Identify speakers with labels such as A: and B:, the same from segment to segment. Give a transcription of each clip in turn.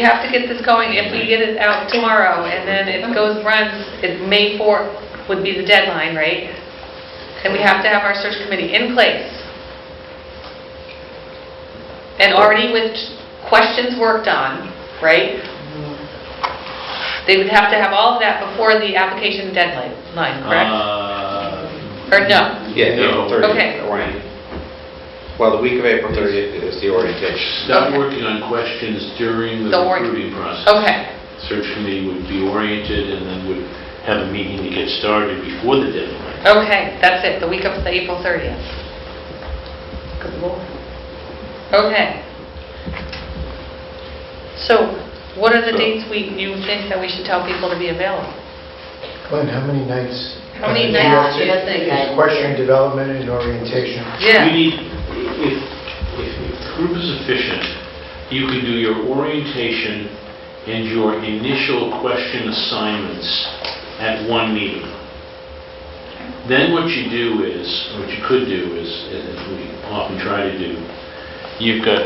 A: We have to get this going if we get it out tomorrow, and then if it goes, runs, it May 4th would be the deadline, right? And we have to have our search committee in place. And already with questions worked on, right? They would have to have all of that before the application deadline, line, correct?
B: Uh,
A: Or no?
C: Yeah,
B: No.
C: April 30th.
A: Okay.
C: orient- Well, the week of April 30th is the orientation.
B: Stop working on questions during the
A: Don't worry. Oh.
B: recruiting process.
A: Okay,
B: Search committee would be oriented and then would have a meeting to get started before the deadline.
A: okay, that's it, the week of the April 30th. Good lord. Okay. So what are the
B: So-
A: dates we, you think that we should tell people to be available?
D: Glenn, how many nights?
A: How many
D: Uh,
A: nights?
D: it's-
E: Yeah, I think I-
D: it's Question development and orientation.
B: We
A: Yeah,
B: need, if, if if the group is efficient, you can do your orientation and your initial question assignments at one meeting. Then what you do is, what you could do is, and as we often try to do, you've got,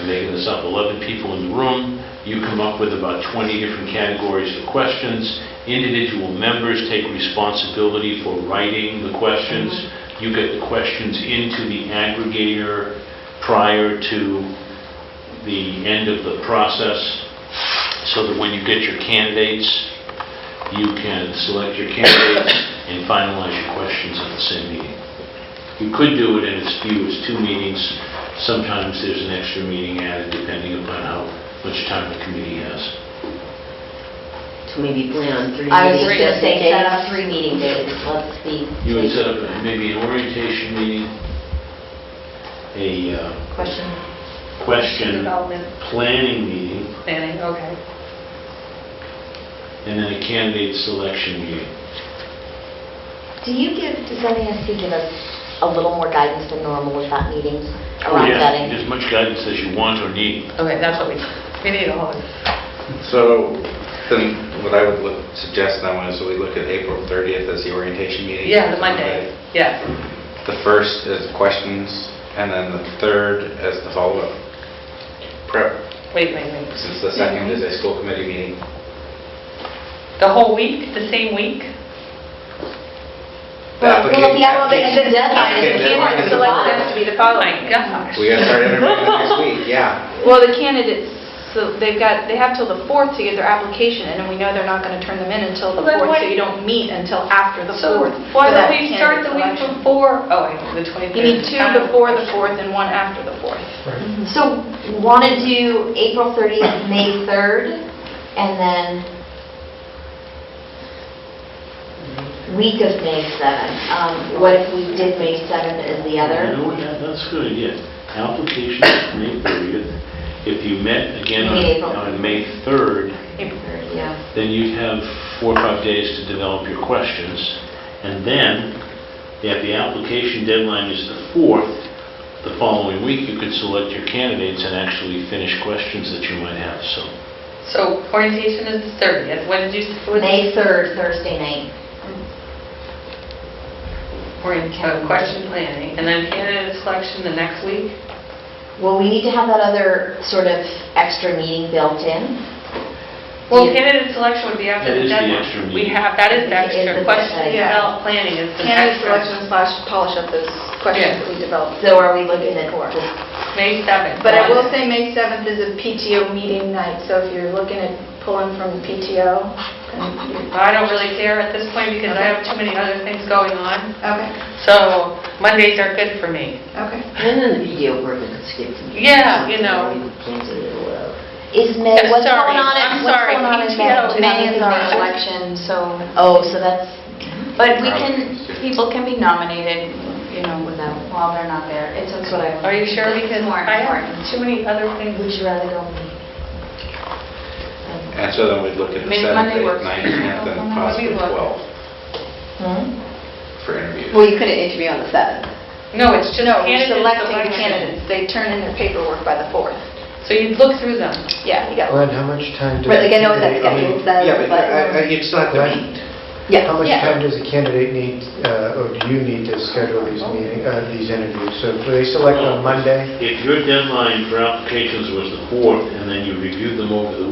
B: I'm making this up, 11 people in the room, you come up with about 20 different categories of questions, individual members take responsibility for writing the questions, you get the questions into the aggregator prior to the end of the process, so that when you get your candidates, you can select your candidates and finalize your questions in the same meeting. You could do it in as few as two meetings. Sometimes there's an extra meeting added depending upon how much time the committee has.
E: So maybe plan on three meetings.
F: I was just going to
E: just in
F: say, set
E: case.
F: up three meeting dates, let's be.
B: You would set up maybe an orientation meeting, a uh,
F: Question.
B: question
A: development
B: planning meeting,
A: planning, okay.
B: and then a candidate selection meeting.
F: Do you give, does MASC give us a little more guidance than normal with that meetings
B: Oh,
F: around
B: yeah,
F: vetting?
B: As much guidance as you want or need.
A: Okay, that's what we, we need all of it.
C: So then what I would look- suggest then is we look at April 30th as the orientation meeting.
A: Yeah, the Monday, yes.
C: The first is questions, and then the third as the follow-up prep,
A: Wait, wait, wait.
C: since the second is a school committee meeting.
A: The whole week, the same week?
C: The
F: Well, the
C: application-
F: application deadline is
C: Okay,
F: in
C: deadline is
F: June,
C: in
F: so it's
C: July.
F: going to be the
A: Oh
F: following.
A: my gosh.
C: We gotta start interviewing next week, yeah.
G: Well, the candidates, so they've got, they have till the 4th to get their application in, and we know they're not going to turn them in until the
A: Well, then
G: 4th, so
A: why-
G: you don't meet until after the 4th.
A: So why
G: for that
A: don't we start the week
G: candidate selection.
A: before, oh, wait, the 23rd?
G: You need two before the 4th and one after the 4th.
D: Right.
F: So want to do April 30th, May 3rd, and then week of May 7th. Um, What if we did May 7th as the
B: You
F: other?
B: know what, that- that's a good idea. Application May 30th. If you met again
F: Meet April.
B: on on May 3rd,
F: April 3rd, yeah.
B: then you'd have four or five days to develop your questions. And then, if the application deadline is the 4th, the following week, you could select your candidates and actually finish questions that you might have, so.
A: So orientation is the 30th, when did you, what was
F: May 3rd, Thursday night.
A: orientation, question planning, and then candidate selection the next week?
F: Well, we need to have that other sort of extra meeting built in.
A: Well,
F: Yeah.
A: candidate selection would be after
B: That
A: the
B: is the
A: deadline.
B: extra
A: We
B: meeting.
A: have, that is the
F: It is
A: extra,
F: the
A: question
G: deadline.
A: development planning is the
G: Candidate
A: extra.
G: selection slash polish up those questions that we developed.
F: So are we looking at,
A: May 7th.
G: But I will
A: Monday.
G: say May 7th is a PTO meeting night, so if you're looking at pulling from PTO, then you-
A: I don't really care at this point because I have too many other things going on.
G: okay,
A: So Mondays are good for me.
G: okay.
E: And then the video work we could skip. to-
A: Yeah, you know.
E: We could cancel it or whatever.
F: is May,
A: Yeah,
F: what's
A: sorry,
F: going on
A: I'm
F: in, what's
A: sorry,
F: going on in May?
A: PTO,
F: Do you have
H: May is
F: anything
H: our
F: going on?
H: election, so,
F: Oh, so that's,
H: but we can, people can be nominated, you know, without, while they're not there. It's okay.
A: Are you sure?
H: It's
A: Because
H: more
A: I have
H: important.
A: too many other
F: would
A: things.
F: you rather go May?
C: And so then we'd look at the
H: Maybe
C: 7th,
H: Monday
C: 8th,
H: works.
C: 9th, 10th, and
H: Maybe
C: possibly
A: work.
C: 12th
F: Hmm?
C: for interviews.
H: Well, you couldn't interview on the 7th.
A: No, it's just
G: No,
A: candidate
G: we're selecting the
A: selection.
G: candidates. They turn in their paperwork by the 4th.
A: So you look through them.
G: Yeah, you got
D: Glenn, how much time? does
H: Like, I know what that
D: I mean,
H: schedule says,
C: Yeah, but
H: but
C: I- I- you'd still have to
D: Right.
C: meet.
F: Yeah.
D: How much
A: Yeah.
D: time does a candidate need, uh, or do you need to schedule these meeting, uh, these interviews? So do they select on Monday?
B: If your deadline for applications was the 4th, and then you reviewed them over the